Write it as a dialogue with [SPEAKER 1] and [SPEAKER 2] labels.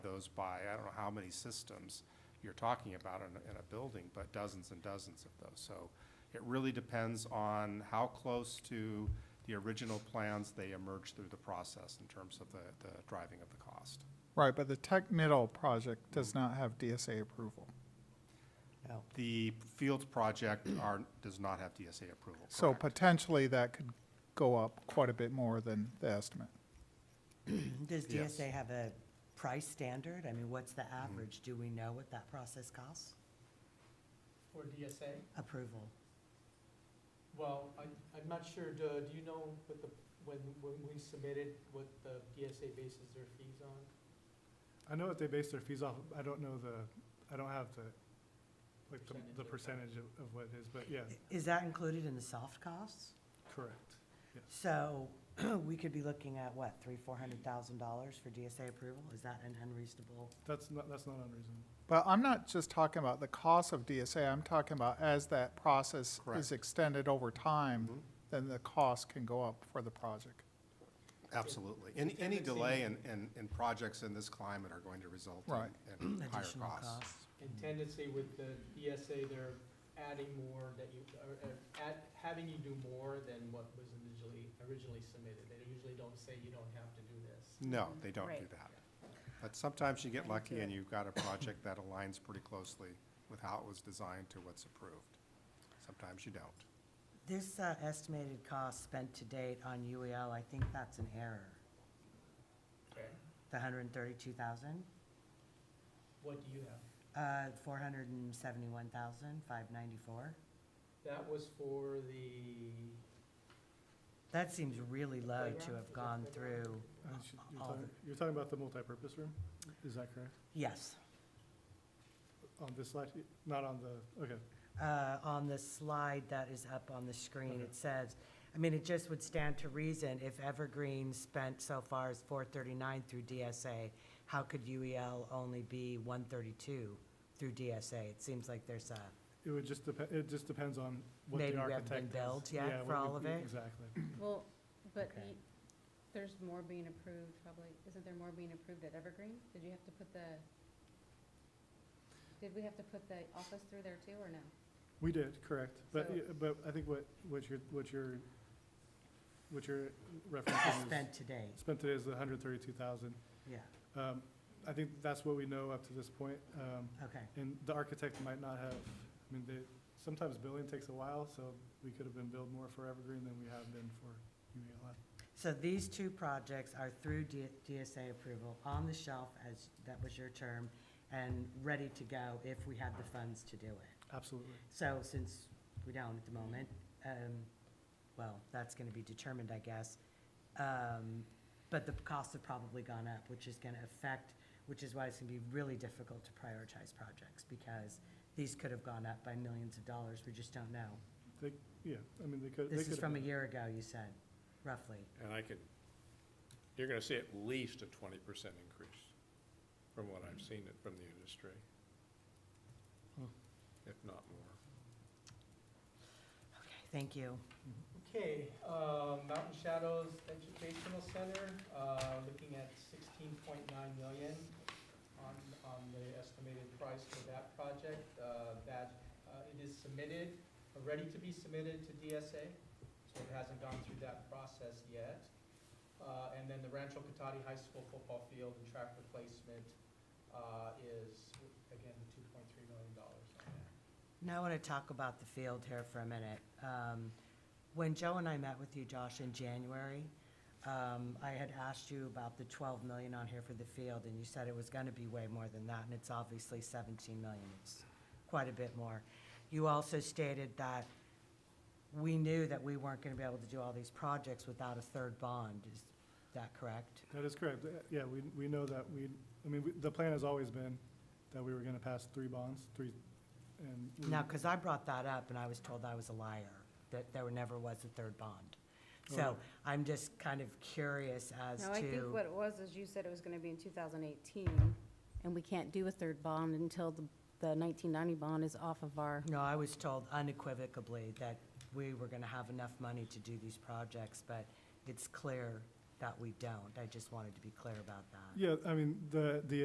[SPEAKER 1] goes by, I don't know how many systems you're talking about in, a- in a building, but dozens and dozens of those. So it really depends on how close to the original plans they emerge through the process in terms of the, the driving of the cost.
[SPEAKER 2] Right, but the Tech Middle project
[SPEAKER 3] Mm.
[SPEAKER 2] does not have DSA approval.
[SPEAKER 4] No.
[SPEAKER 1] The Fields project are, does not have DSA approval,
[SPEAKER 2] So
[SPEAKER 1] correct?
[SPEAKER 2] potentially that could go up quite a bit more than the estimate.
[SPEAKER 4] Does
[SPEAKER 1] Yes.
[SPEAKER 4] DSA have a price standard? I mean, what's the
[SPEAKER 1] Mm-hmm.
[SPEAKER 4] average? Do we know what that process costs?
[SPEAKER 5] For DSA?
[SPEAKER 4] Approval.
[SPEAKER 5] Well, I, I'm not sure, do, do you know what the, when, when we submitted, what the DSA bases their fees on?
[SPEAKER 3] I know what they base their fees off, of. I don't know the, I don't have the, like, the-
[SPEAKER 5] Percentage
[SPEAKER 3] the
[SPEAKER 5] of-
[SPEAKER 3] percentage of, of what it is, but yeah,
[SPEAKER 4] I- Is that included in the soft costs?
[SPEAKER 3] correct.
[SPEAKER 4] So we could be looking at, what, three, four hundred thousand dollars for DSA approval? Is that an unreasonable?
[SPEAKER 3] That's not, that's not unreasonable.
[SPEAKER 2] But I'm not just talking about the cost of DSA, I'm talking about as that process
[SPEAKER 1] Correct.
[SPEAKER 2] is extended over time,
[SPEAKER 3] Mm-hmm.
[SPEAKER 1] Mhm.
[SPEAKER 2] then the cost can go up for the project.
[SPEAKER 1] Absolutely. Any, any delay in, in, in projects in this climate are going to result
[SPEAKER 2] Right.
[SPEAKER 1] in, in higher
[SPEAKER 4] Additional
[SPEAKER 1] costs.
[SPEAKER 4] costs.
[SPEAKER 5] And tendency with the DSA, they're adding more that you, or, or add, having you do more than what was originally, originally submitted. They usually don't say you don't have to do this.
[SPEAKER 1] No, they don't do
[SPEAKER 6] Right.
[SPEAKER 1] that. But sometimes you get
[SPEAKER 6] Thank
[SPEAKER 1] lucky
[SPEAKER 6] you.
[SPEAKER 1] and you've got a project that aligns pretty closely with how it was designed to what's approved. Sometimes you don't.
[SPEAKER 4] This uh, estimated cost spent to date on UEL, I think that's an error.
[SPEAKER 5] Okay.
[SPEAKER 4] The hundred and thirty-two thousand,
[SPEAKER 5] What do you have?
[SPEAKER 4] uh, four hundred and seventy-one thousand, five ninety-four.
[SPEAKER 5] That was for the.
[SPEAKER 4] That seems really low to
[SPEAKER 5] Playground? Is
[SPEAKER 4] have
[SPEAKER 5] that
[SPEAKER 4] gone
[SPEAKER 5] playground?
[SPEAKER 4] through,
[SPEAKER 3] I should- you're
[SPEAKER 4] Uh, All
[SPEAKER 3] talking- You're talking about the multipurpose room, is that correct?
[SPEAKER 4] yes.
[SPEAKER 3] On this slide, not on the, okay,
[SPEAKER 4] uh, on the slide that is up on the screen, it says, I mean, it just would stand to reason if Evergreen spent so far as four thirty-nine through DSA, how could UEL only be one thirty-two through DSA? It seems like there's a,
[SPEAKER 3] it would just depend, it just depends on what
[SPEAKER 4] Maybe
[SPEAKER 3] the
[SPEAKER 4] we haven't been
[SPEAKER 3] architect does.
[SPEAKER 4] billed yet
[SPEAKER 3] Yeah,
[SPEAKER 4] for
[SPEAKER 3] what
[SPEAKER 4] all
[SPEAKER 3] we-
[SPEAKER 4] of it?
[SPEAKER 3] Exactly.
[SPEAKER 6] Well, but
[SPEAKER 4] Okay.
[SPEAKER 6] the- there's more being approved probably, isn't there more being approved at Evergreen? Did you have to put the, did we have to put the office through there too, or no?
[SPEAKER 3] We did, correct, but,
[SPEAKER 6] So-
[SPEAKER 3] yeah, but I think what, what you're, what you're, what you're referencing is,
[SPEAKER 4] spent today,
[SPEAKER 3] spent today is the hundred thirty-two thousand.
[SPEAKER 4] yeah,
[SPEAKER 3] Um, I think that's what we know up to this point. Um,
[SPEAKER 4] okay.
[SPEAKER 3] and the architect might not have, I mean, they, sometimes billing takes a while, so we could have been billed more for Evergreen than we have been for UELI.
[SPEAKER 4] So these two projects are through D- DSA approval, on the shelf, as that was your term, and ready to go if we had the funds to do it.
[SPEAKER 3] Absolutely.
[SPEAKER 4] So since we don't at the moment, um, well, that's gonna be determined, I guess. Um, but the costs have probably gone up, which is gonna affect, which is why it's gonna be really difficult to prioritize projects, because these could have gone up by millions of dollars, we just don't know.
[SPEAKER 3] Yeah, I mean, they could. they
[SPEAKER 4] This
[SPEAKER 3] could
[SPEAKER 4] is
[SPEAKER 3] have
[SPEAKER 4] from a
[SPEAKER 3] been-
[SPEAKER 4] year ago, you said, roughly.
[SPEAKER 7] And I can, you're gonna see at least a twenty percent increase from what I've seen it from the industry.
[SPEAKER 3] Hmm.
[SPEAKER 7] If not more.
[SPEAKER 4] Okay, thank you.
[SPEAKER 5] Okay, um, Mountain Shadows Educational Center, uh, looking at sixteen point nine million on, on the estimated price for that project, uh, that, uh, it is submitted, or ready to be submitted to DSA, so it hasn't gone through that process yet. Uh, and then the Rancho Cotati High School football field and track replacement, uh, is, again, two point three million dollars on that.
[SPEAKER 4] Now I want to talk about the field here for a minute. Um, When Joe and I met with you, Josh, in January, um, I had asked you about the 12 million on here for the field, and you said it was going to be way more than that, and it's obviously 17 million. It's quite a bit more. You also stated that we knew that we weren't going to be able to do all these projects without a third bond. Is that correct?
[SPEAKER 3] That is correct. Uh, Yeah, we, we know that we, I mean, we- the plan has always been that we were gonna pass three bonds, three, and. we-
[SPEAKER 4] Now, because I brought that up and I was told I was a liar, that there never was a third bond. So
[SPEAKER 3] Okay.
[SPEAKER 4] I'm just kind of curious as
[SPEAKER 6] No, I think
[SPEAKER 4] to,
[SPEAKER 6] what it was is you said it was gonna be in two thousand eighteen, and we can't do a third bond until the, the nineteen ninety bond is off of our.
[SPEAKER 4] no, I was told unequivocally that we were going to have enough money to do these projects, but it's clear that we don't. I just wanted to be clear about that.
[SPEAKER 3] Yeah, I mean, the, the